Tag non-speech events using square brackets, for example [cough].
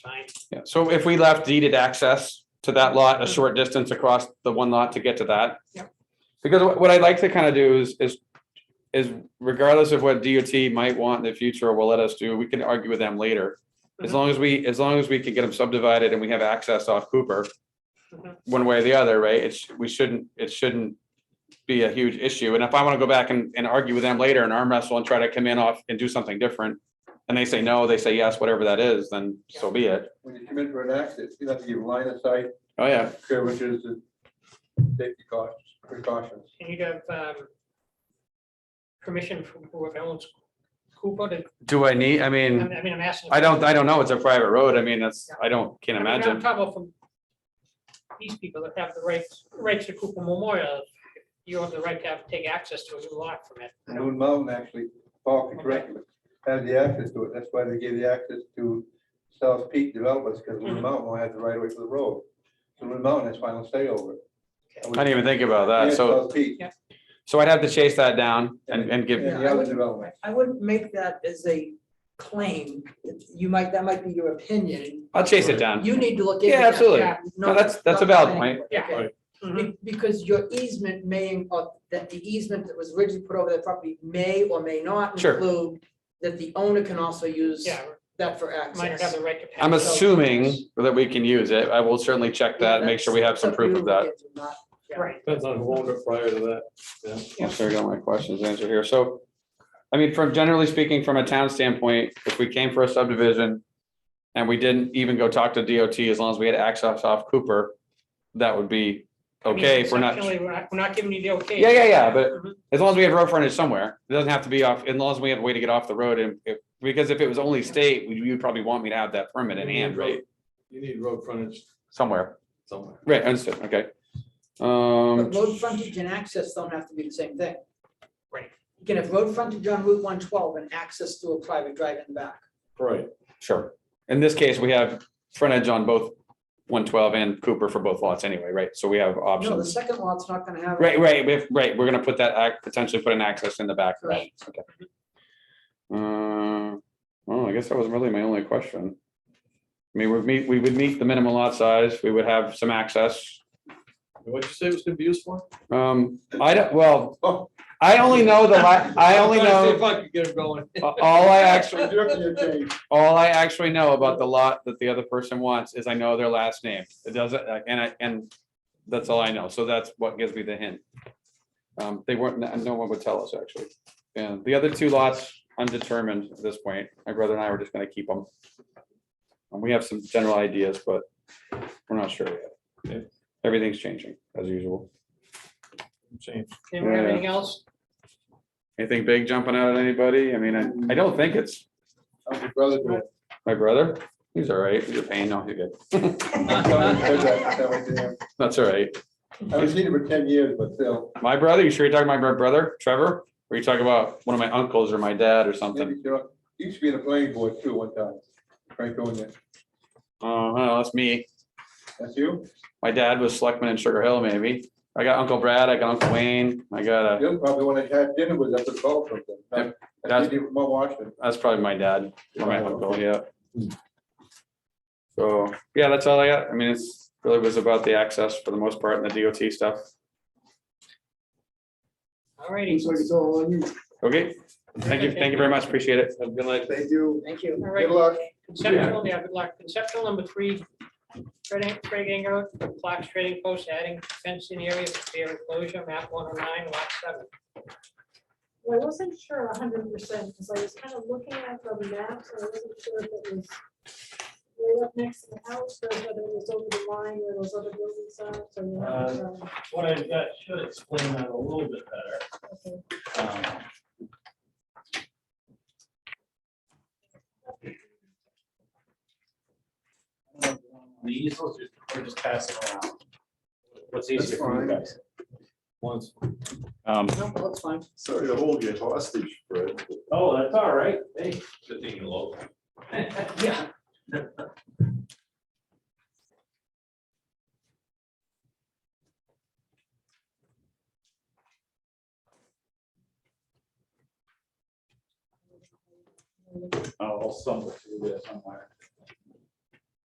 Fine. Yeah, so if we left deeded access to that lot, a short distance across the one lot to get to that. Yep. Because what what I'd like to kind of do is, is, is regardless of what DOT might want in the future or will let us do, we can argue with them later. As Mhm. long as we, as long as we can get them subdivided and we have access off Cooper, Mhm. one way or the other, right? It's, we shouldn't, it shouldn't be a huge issue. And if I want to go back and, and argue with them later and arm wrestle and try to come in off and do something different, and they say no, they say yes, whatever that is, then so be it. When you commit to an accident, you have to give line of sight, Oh, yeah. curvatures, and safety cautions, precautions. And you'd have um, permission from whoever owns Cooper to, Do I need, I I mean, mean, I mean, I'm asking. I don't, I don't know, it's a private road, I mean, that's, I don't, can't I mean, I'm imagine. talking about from these people that have the rights, rights to Cooper Memorial. You have the right to have, take access to a new lot from it. Moon Mountain actually, Paul can correct me, has the access to it, that's why they gave the access to South Peak developers, because Moon Mm-hmm. Mhm. Mountain will have the right of way for the road. So Moon Mountain has final say over it. I didn't even think about that, And so, South Peak, so I'd have to chase that down and, and give, Yeah. Yeah, the I other wouldn't- development. I wouldn't make that as a claim. You might, that might be your opinion. I'll chase it down. You need to look into Yeah, that. absolutely. Yeah. No, that's- that's a valid point. Yeah. Okay. Be- Because your easement may, or that the easement that was originally put over that property may or may not Sure. include that the owner can also use Yeah, that for minor have access. the right to. pass. I'm ass- assuming that we can use it, I will certainly check that, make sure we have some proof of that. Right. Depends on who owned it prior to that. I'm sure I got my questions answered here, so, I mean, from, generally speaking, from a town standpoint, if we came for a subdivision and we didn't even go talk to DOT, as long as we had access off Cooper, that would be I mean, okay, if we're not. conceptually, We're not, we're not giving you the okay. Yeah, yeah, yeah, but- Mm-hmm. Mhm. As long as we have road frontage somewhere, it doesn't have to be off, as long as we have a way to get off the road and if, because if it was only state, we- you'd probably want me to have that permit in hand, right? You need road frontage Somewhere, somewhere. right, understood, okay. Um, But road frontage and access don't have to be the same thing. Right. You can have road frontage on Route one twelve and access to a private drive in the back. Right. sure, in this case, we have frontage on both one twelve and Cooper for both lots anyway, right, so we have No, the options. second lot's not gonna have. it. Right, right, we have- right, we're gonna put that, ac- potentially put an access in the back of that, okay. Uh, well, I guess that was really my only question. I mean, we'd meet, we would meet the minimum lot size, we would have some access, What'd you say it was gonna be used for? Um, I don't, well, Oh. I only know the la, I only [laughs] know, I could get it going. all I actually, Actually, all I actually know about the lot that the other person wants is I know their last name. It doesn't, and I, and that's all I know. So that's what gives me the hint. Um, they weren't, no one would tell us actually. And the other two lots undetermined at this point. My brother and I were just gonna keep them. And we have some general ideas, but we're not sure yet. Okay. Everything's changing as usual. Change. Anyone have Yeah. anything else? Anything big jumping out at anybody? I mean, I, I don't think it's I'm your brother, [laughs] but- my brother. He's all right. He's a pain. No, he's good. I'm sorry, because I- that was there. That's all right. I haven't seen him for ten years, but still, My brother, you sure you're talking about my brother, Trevor? Or you talking about one of my uncles or my dad or something? maybe you're- he used to be in the planning board too one time. Frank Owen, Oh, no, that's me. that's you? My dad was selectman in Sugar Hill, maybe. I got Uncle Brad, I got Uncle Wayne, I got a, You'll probably want to have dinner with us at all from them. Yep, that's- Mo Washington. that's probably my dad or my uncle, yeah. Hmm. So, yeah, that's all I got. I mean, it's really was about the access for the most part and the DOT stuff. All righty. Okay, thank you, thank you very much. Appreciate it. Have a good night. Thank you. Thank you. All right. Good luck. Conceptual, yeah, good luck. Conceptual number three, Fred Ang- Craig Ingo, Fox Trading Post adding fence in area for beer enclosure, map one oh nine, lot seven. Well, I wasn't sure hundred percent, because I was kind of looking at the maps, and I wasn't sure if it was right up next to the house, or whether it was over the line where those other buildings are, so. you know, um, what I've got should explain that a little bit better. okay. Um, The easels, just- we're just passing around. What's easier for you guys? Once. Um, No, that's fine. Sorry to hold you hostage, Fred. Oh, that's all right. Hey, Good thing you love. Yeah. I'll stumble through there somewhere.